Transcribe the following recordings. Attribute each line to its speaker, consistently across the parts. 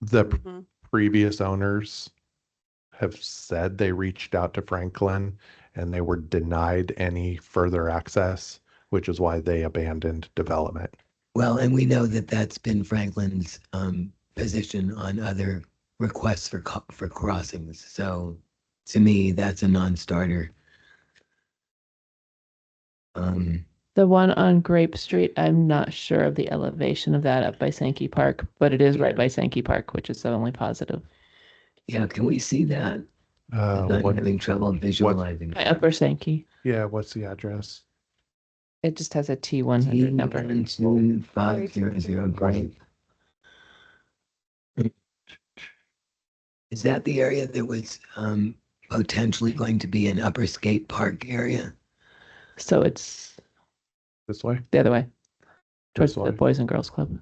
Speaker 1: the p-
Speaker 2: Mhm.
Speaker 1: previous owners have said they reached out to Franklin and they were denied any further access, which is why they abandoned development.
Speaker 3: Well, and we know that that's been Franklin's um, position on other requests for co- for crossings. So to me, that's a non-starter. Um,
Speaker 4: The one on Grape Street, I'm not sure of the elevation of that up by Sankey Park, but it is right by Sankey Park, which is the only positive.
Speaker 3: yeah, can we see that?
Speaker 1: Uh,
Speaker 3: I'm
Speaker 1: what-
Speaker 3: having trouble visualizing.
Speaker 4: By Upper Sankey.
Speaker 1: yeah, what's the address?
Speaker 4: It just has a T one hundred number.
Speaker 3: Two five zero zero grape. Is that the area that was um, potentially going to be an upper skate park area?
Speaker 4: So it's
Speaker 1: This way?
Speaker 4: the other way. Towards
Speaker 1: This
Speaker 4: the
Speaker 1: way?
Speaker 4: Boys and Girls Club.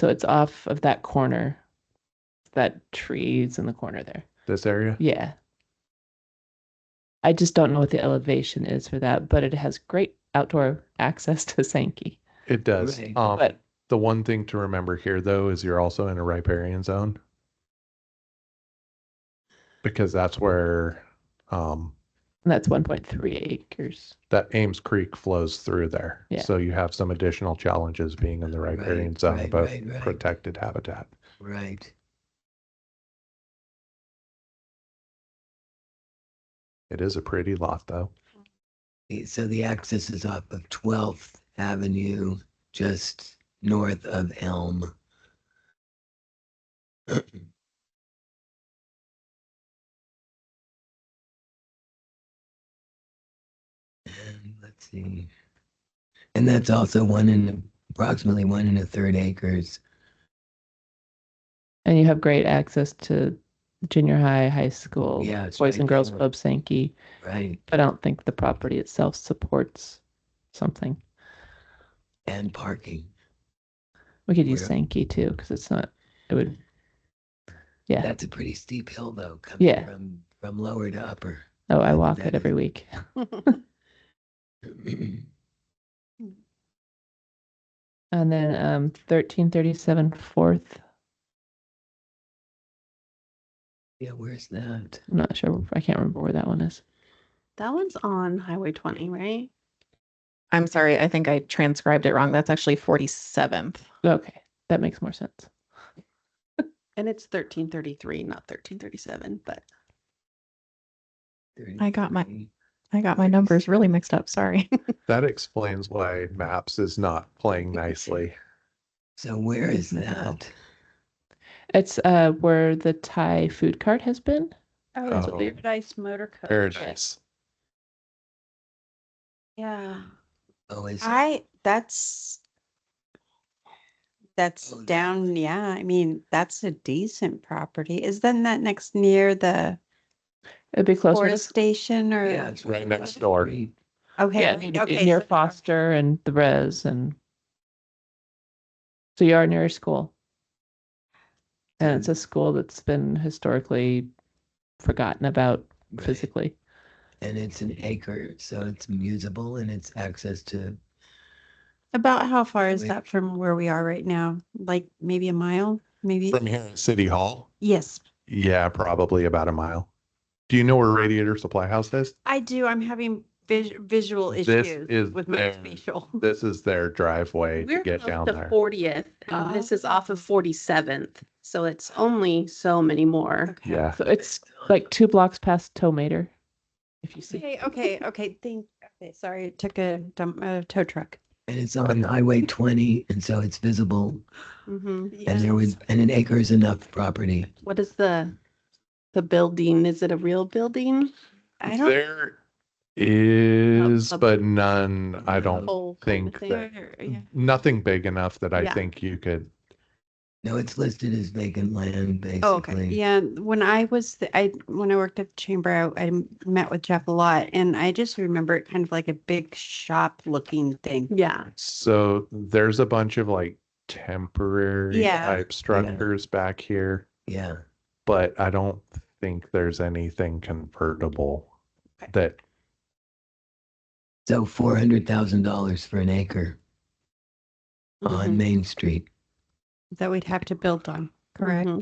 Speaker 4: So it's off of that corner. That tree's in the corner there.
Speaker 1: This area?
Speaker 4: Yeah. I just don't know what the elevation is for that, but it has great outdoor access to Sankey.
Speaker 1: It does.
Speaker 3: Right.
Speaker 1: Um,
Speaker 4: But
Speaker 1: the one thing to remember here, though, is you're also in a riparian zone because that's where um,
Speaker 4: that's one point three acres.
Speaker 1: that Ames Creek flows through there.
Speaker 4: Yeah.
Speaker 1: So you have some additional challenges being in the riparian
Speaker 3: Right,
Speaker 1: zone,
Speaker 3: right,
Speaker 1: but
Speaker 3: right, right.
Speaker 1: protected habitat.
Speaker 3: Right.
Speaker 1: It is a pretty lot, though.
Speaker 3: The- So the access is off of 12th Avenue, just north of Elm. And let's see. And that's also one and approximately one and a third acres.
Speaker 4: And you have great access to junior high, high school,
Speaker 3: Yeah, it's
Speaker 4: boys
Speaker 3: right
Speaker 4: and girls
Speaker 3: there.
Speaker 4: club, Sankey.
Speaker 3: Right.
Speaker 4: But I don't think the property itself supports something.
Speaker 3: And parking.
Speaker 4: We could use
Speaker 3: Yeah.
Speaker 4: Sankey too, because it's not. It would. Yeah.
Speaker 3: That's a pretty steep hill though, coming
Speaker 4: Yeah.
Speaker 3: from, from lower to upper.
Speaker 4: Oh, I
Speaker 3: that-
Speaker 4: walk
Speaker 3: that
Speaker 4: it every week.
Speaker 2: Mm-hmm.
Speaker 4: And then um, 1337 Fourth.
Speaker 3: Yeah, where's that?
Speaker 4: I'm not sure. I can't remember where that one is.
Speaker 2: That one's on Highway 20, right?
Speaker 5: I'm sorry, I think I transcribed it wrong. That's actually 47th.
Speaker 4: Okay, that makes more sense.
Speaker 2: And it's 1333, not 1337, but
Speaker 5: I got my-
Speaker 3: 33.
Speaker 5: I got my numbers really mixed up. Sorry.
Speaker 1: That explains why Maps is not playing nicely.
Speaker 3: So where is that?
Speaker 4: It's uh where the Thai food cart has been.
Speaker 2: oh,
Speaker 1: it's Oh.
Speaker 2: Paradise Motor Coach.
Speaker 1: Paradise.
Speaker 2: Yeah.
Speaker 3: Oh, is
Speaker 2: I that's that's
Speaker 3: Oh, that
Speaker 2: down, yeah. I mean, that's a decent property. Is then that next near the
Speaker 4: It'd be closer.
Speaker 2: forest
Speaker 4: To,
Speaker 2: station or
Speaker 3: yeah, it's
Speaker 1: Right
Speaker 3: across
Speaker 1: next
Speaker 3: the
Speaker 1: door.
Speaker 3: street.
Speaker 2: okay,
Speaker 4: yeah,
Speaker 2: right-
Speaker 4: near-
Speaker 2: okay,
Speaker 4: near
Speaker 2: so-
Speaker 4: Foster and the Res, and so you are near a school, and it's a school that's been historically forgotten about
Speaker 3: Right.
Speaker 4: physically.
Speaker 3: And it's an acre, so it's usable and it's access to
Speaker 2: About how far is
Speaker 3: Wait.
Speaker 2: that from where we are right now? Like maybe a mile, maybe?
Speaker 1: From here at City Hall?
Speaker 2: Yes,
Speaker 1: Yeah, probably about a mile. Do you know where Radiator Supply House is?
Speaker 2: I do. I'm having vis- visual
Speaker 1: This
Speaker 2: issues
Speaker 1: is
Speaker 2: with my
Speaker 1: their-
Speaker 2: spatial.
Speaker 1: This is their driveway to
Speaker 6: We're
Speaker 1: get
Speaker 6: close
Speaker 1: down
Speaker 6: to
Speaker 1: there.
Speaker 6: Fortieth,
Speaker 2: Ah.
Speaker 6: and this is off of Forty-seventh, so it's only so many more.
Speaker 2: Okay.
Speaker 1: Yeah.
Speaker 4: So it's like two blocks past Tomater, if you see.
Speaker 2: Okay, okay, okay. Thank, okay, sorry, it took a dump, a tow truck.
Speaker 3: and it's on Highway twenty, and so it's visible.
Speaker 2: Mm-hmm.
Speaker 6: Mhm.
Speaker 3: And there was and an acre is enough property.
Speaker 6: What is the, the building? Is it a real building?
Speaker 2: I don't. Oh,
Speaker 1: There is,
Speaker 6: a-
Speaker 1: but none, I don't,
Speaker 6: Whole kind of
Speaker 1: think
Speaker 6: thing?
Speaker 1: that-
Speaker 2: Or- yeah.
Speaker 1: nothing big enough that I
Speaker 2: Yeah.
Speaker 1: think you could.
Speaker 3: No, it's listed as vacant land, basically.
Speaker 2: Oh, okay. Yeah, when I was, th- I, when I worked at the chamber, I, I met with Jeff a lot and I just remember it kind of like a big shop looking thing.
Speaker 6: Yeah,
Speaker 1: So there's a bunch of like temporary
Speaker 2: Yeah.
Speaker 1: type structures back here,
Speaker 3: Yeah.
Speaker 1: but I don't think there's anything convertible
Speaker 2: Okay.
Speaker 1: that,
Speaker 3: So four hundred thousand dollars for an acre
Speaker 6: Mhm.
Speaker 2: Mm-hmm.
Speaker 6: Mm-hmm.
Speaker 3: on Main Street.
Speaker 2: That we'd have to build on, Mm-hmm. correct?
Speaker 6: Mhm.